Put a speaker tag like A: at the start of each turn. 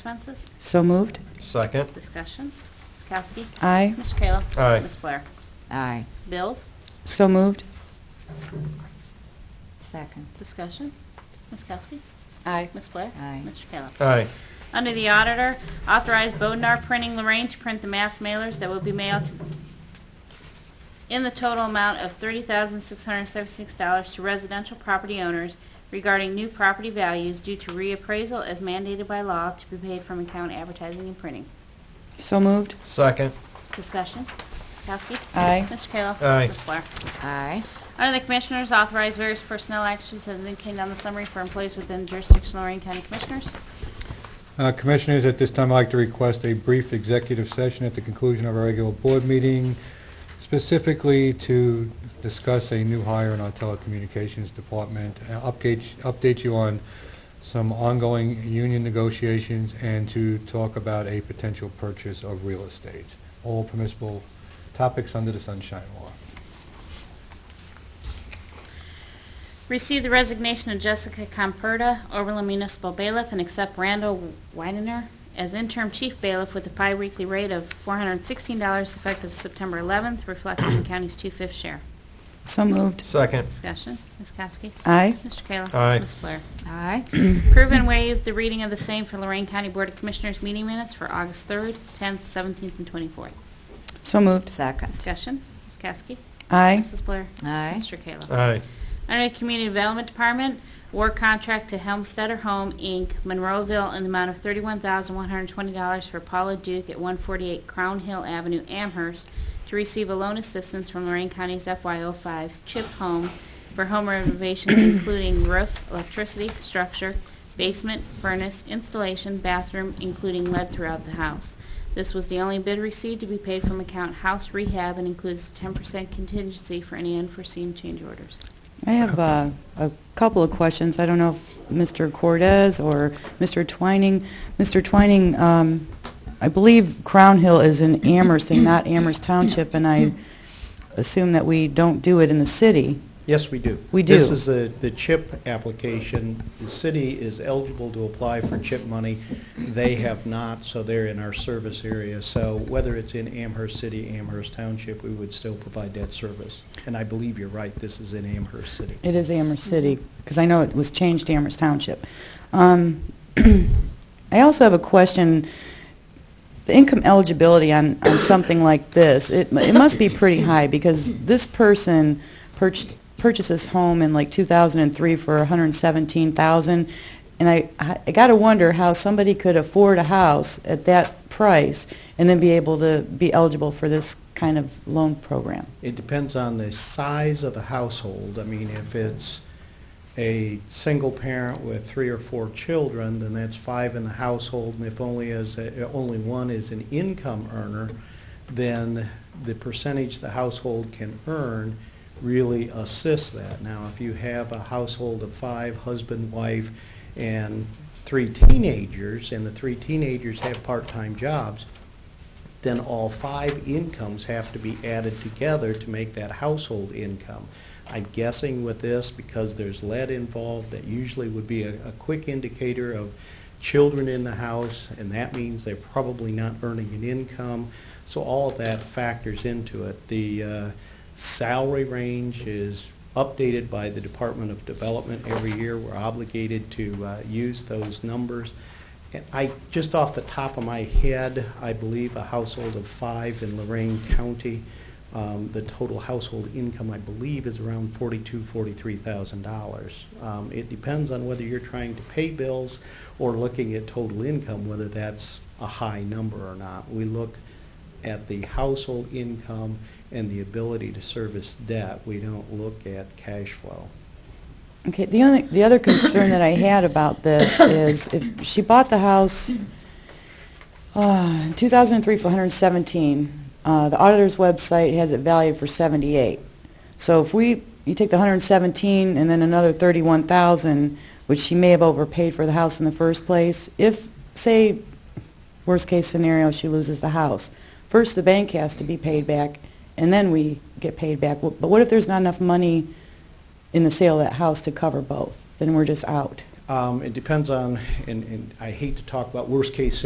A: Expenses,
B: So moved.
C: Second,
A: discussion. Ms. Kowski.
B: Aye.
A: Mr. Kayla.
C: Aye.
A: Ms. Blair.
D: Aye.
A: Bills,
B: So moved.
D: Second.
A: discussion. Ms. Kowski.
B: Aye.
A: Ms. Blair.
D: Aye.
A: Mr. Kayla.
C: aye.
A: Under the auditor, authorize Bodnar Printing Lorraine to print the mass mailers that will be mailed in the total amount of $30,676 to residential property owners regarding new property values due to reappraisal as mandated by law to be paid from account advertising and printing.
B: So moved.
C: Second,
A: Discussion. Ms. Kowski.
B: Aye.
A: Mr. Kayla.
C: Aye.
A: Ms. Blair.
D: Aye.
A: Under the Commissioners, authorize various personnel actions as indicated on the summary for employees within jurisdiction of Lorraine County Commissioners.
E: Uh, Commissioners, at this time, I'd like to request a brief executive session at the conclusion of our regular board meeting, specifically to discuss a new hire in our telecommunications department, uh, update update you on some ongoing union negotiations, and to talk about a potential purchase of real estate. All permissible topics under the Sunshine Law.
A: Receive the resignation of Jessica Comperta, Oberlin Municipal Bailiff, and accept Randall Widener as interim chief bailiff with a bi-weekly rate of $416 effective September 11th, reflecting the county's two-fifth share.
B: So moved.
C: second,
A: Discussion. Ms. Kowski.
B: Aye.
A: Mr. Kayla.
C: Aye.
A: Ms. Blair.
D: Aye.
A: Approve and waive the reading of the same for Lorraine County Board of Commissioners meeting minutes for August 3rd, 10th, 17th, and 24th.
B: So moved.
D: Second.
A: Discussion. Ms. Kowski.
B: Aye.
A: Mrs. Blair.
D: Aye.
A: Mr. Kayla.
C: aye.
A: Under the Community Development Department, award contract to Helmstetter Home, Inc., Monroeville, in the amount of $31,120 for Paula Duke at 148 Crown Hill Avenue, Amherst, to receive a loan assistance from Lorraine County's FY05's CHIP home for home renovations including roof, electricity, structure, basement, furnace, installation, bathroom, including lead throughout the house. This was the only bid received to be paid from account house rehab and includes 10% contingency for any unforeseen change orders.
B: I have uh, a couple of questions. I don't know if Mr. Cortez or Mr. Twining. Mr. Twining, um, I believe Crown Hill is in Amherst and not Amherst Township, and I assume that we don't do it in the city.
F: Yes, we do.
B: We do.
F: This is the, the CHIP application. The city is eligible to apply for CHIP money. They have not, so they're in our service area. So whether it's in Amherst City, Amherst Township, we would still provide that service. And I believe you're right, this is in Amherst City.
B: It is Amherst City, because I know it was changed to Amherst Township. Um, I also have a question. The income eligibility on, on something like this, it, mu- it must be pretty high, because this person purchased, purchased this home in like 2003 for 117000 and I, I I gotta wonder how somebody could afford a house at that price and then be able to be eligible for this kind of loan program.
F: It depends on the size of the household. I mean, if it's a single parent with three or four children, then that's five in the household. And if only is, only one is an income earner, then the percentage the household can earn really assists that. Now, if you have a household of five, husband, wife, and three teenagers, and the three teenagers have part-time jobs, then all five incomes have to be added together to make that household income. I'm guessing with this, because there's lead involved, that usually would be a, a quick indicator of children in the house, and that means they're probably not earning an income. So all of that factors into it. The uh, salary range is updated by the Department of Development every year. We're obligated to uh, use those numbers. And I, just off the top of my head, I believe a household of five in Lorraine County, um, the total household income, I believe, is around forty-two, forty-three thousand dollars. Um, it depends on whether you're trying to pay bills or looking at total income, whether that's a high number or not. We look at the household income and the ability to service debt. We don't look at cash flow.
B: Okay, the only, the other concern that I had about this is if she bought the house uh, in 2003 for 117, uh, the auditor's website has it valued for 78. So if we, you take the 117 and then another 31,000, which she may have overpaid for the house in the first place, if, say, worst case scenario, she loses the house, first the bank has to be paid back and then we get paid back. But what if there's not enough money in the sale of that house to cover both, then we're just out.
F: Um, It depends on, and and I hate to talk about worst-case